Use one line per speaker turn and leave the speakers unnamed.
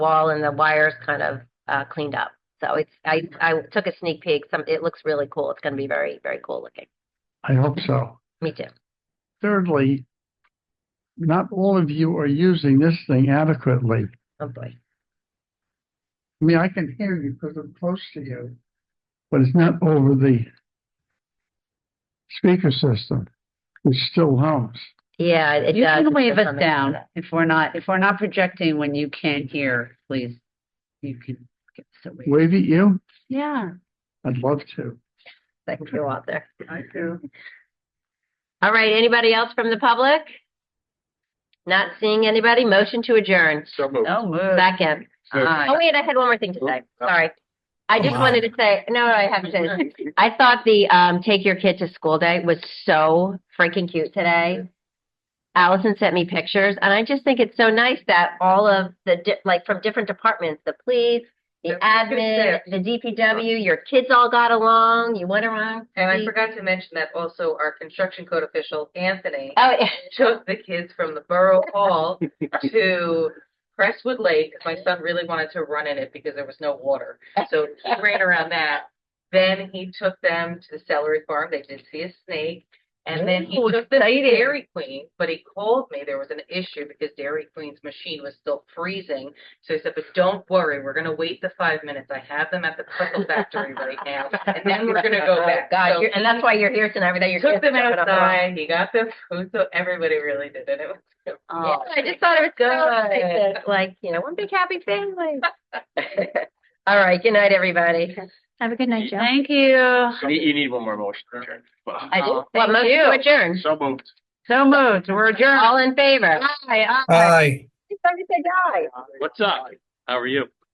wall and the wires kind of uh, cleaned up. So it's I I took a sneak peek. Some it looks really cool. It's going to be very very cool looking.
I hope so.
Me too.
Thirdly, not all of you are using this thing adequately.
Oh boy.
I mean, I can hear you because I'm close to you, but it's not over the speaker system, which still hums.
Yeah, it
You
does.
can
It's
wave
just
us
on the-
down if we're not, if we're not projecting when you can't hear, please. You can give us a wave.
Wave at you?
Yeah.
I'd love to.
That can go out there.
I do.
All right. Anybody else from the public? Not seeing anybody. Motion to adjourn.
So moved.
No move.
Back in.
Aye.
Oh wait, I had one more thing to say. Sorry. I just
Come on.
wanted to say no. I have to say this. I thought the um, take your kid to school day was so freaking cute
Mm-hmm.
today. Allison sent me pictures, and I just think it's so nice that all of the di- like from different departments, the police, the admin, the DPW, your kids all got along. You went around.
And Oh, I forgot to mention that also our construction code official, Anthony,
Oh yeah.
took the kids from the Borough Hall to Crestwood Lake. 'cause My son really wanted to run in it because there was no water. So he ran around that. Then he took them to the celery farm. They did see a snake. And then he
Ooh,
took them to
exciting.
Dairy Queen, but he called me. There was an issue because Dairy Queen's machine was still freezing. So he said, But don't worry, we're going to wait the five minutes. I have them at the pickle factory right now. And then we're going to go
Oh,
back.
God,
So-
you're- and that's why you're here tonight. That
he
you're
took them outside. He got them food, so everybody really did it. It was
Yeah,
Oh,
I just thought it was
Good.
so nice that, like you know one big happy family. All right. Good night, everybody.
Have a good night, Joe.
Thank you.
You need- you need one more motion. Chair.
I do.
Oh,
Well,
thank
motion
you.
to adjourn.
So moved.
So moved. We're adjourned.
All in favor?
Aye, aye.
Aye.
Somebody said aye.
What's up? How are you?